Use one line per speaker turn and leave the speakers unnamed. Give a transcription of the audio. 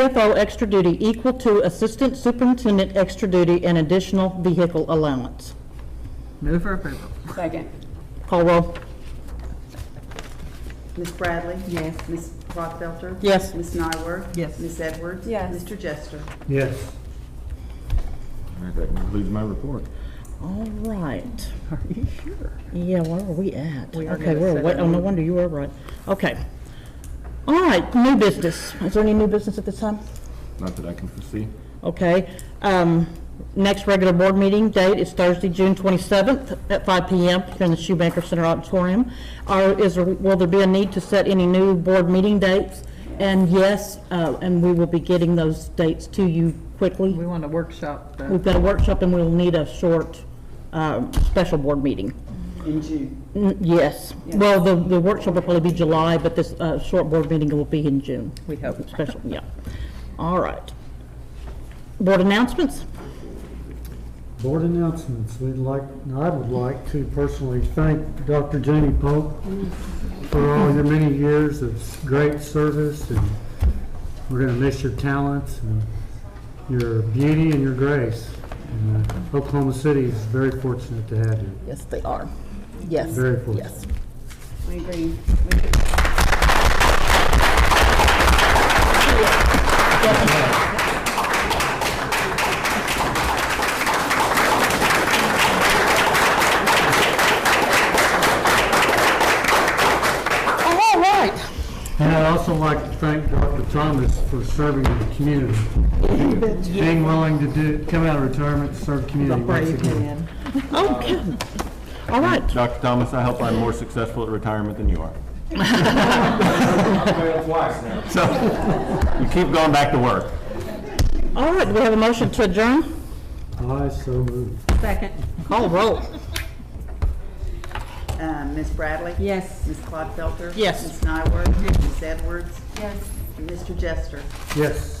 CFO extra duty equal to Assistant Superintendent extra duty and additional vehicle allowance.
Move for approval.
Second.
Call roll.
Ms. Bradley?
Yes.
Ms. Rothfelter?
Yes.
Ms. Nyworth?
Yes.
Ms. Edwards?
Yes.
Mr. Jester?
yes,
All right, that concludes my report.
All right.
Are you sure?
Yeah, where are we at?
We are
Okay,
gonna
we're,
set
way-
a
oh, no
new-
wonder you were right. Okay. All right, new business. Is there any new business at this time?
Not that I can foresee.
Okay. Um, next regular board meeting date is Thursday, June twenty-seventh at five PM here in the Shoemaker Center Auditorium. Are, is, there- will there be a need to set any new board meeting dates? And yes, uh, and we will be getting those dates to you quickly.
We want to workshop the,
We've got a workshop and we'll need a short, um, special board meeting.
In June.
N- Yes. Well, the, the workshop will probably be July, but this, uh, short board meeting will be in June.
we hope.
Special, yeah. All right. Board announcements?
board announcements, we'd like, I would like to personally thank Dr. Janie Pope for all your many years of s- great service, and we're gonna miss your talents, and your beauty and your grace. And, uh, Oklahoma City is very fortunate to have you,
Yes, they are. Yes.
very fortunate.
We agree.
Oh, All right.
And I'd also like to thank Dr. Thomas for serving the community. Being willing to do, come out of retirement, to serve the community once again.
Okay. All right.
Dr. Thomas, I hope I'm more successful at retirement than you are. So, you keep going back to work.
All right. Do we have a motion to adjourn?
I so moved.
Second.
Call roll.
Uh, Ms. Bradley?
Yes.
Ms. Clodfelter?
Yes.
Ms. Nyworth? Ms. Edwards?
Yes.
Mr. Jester?
Yes.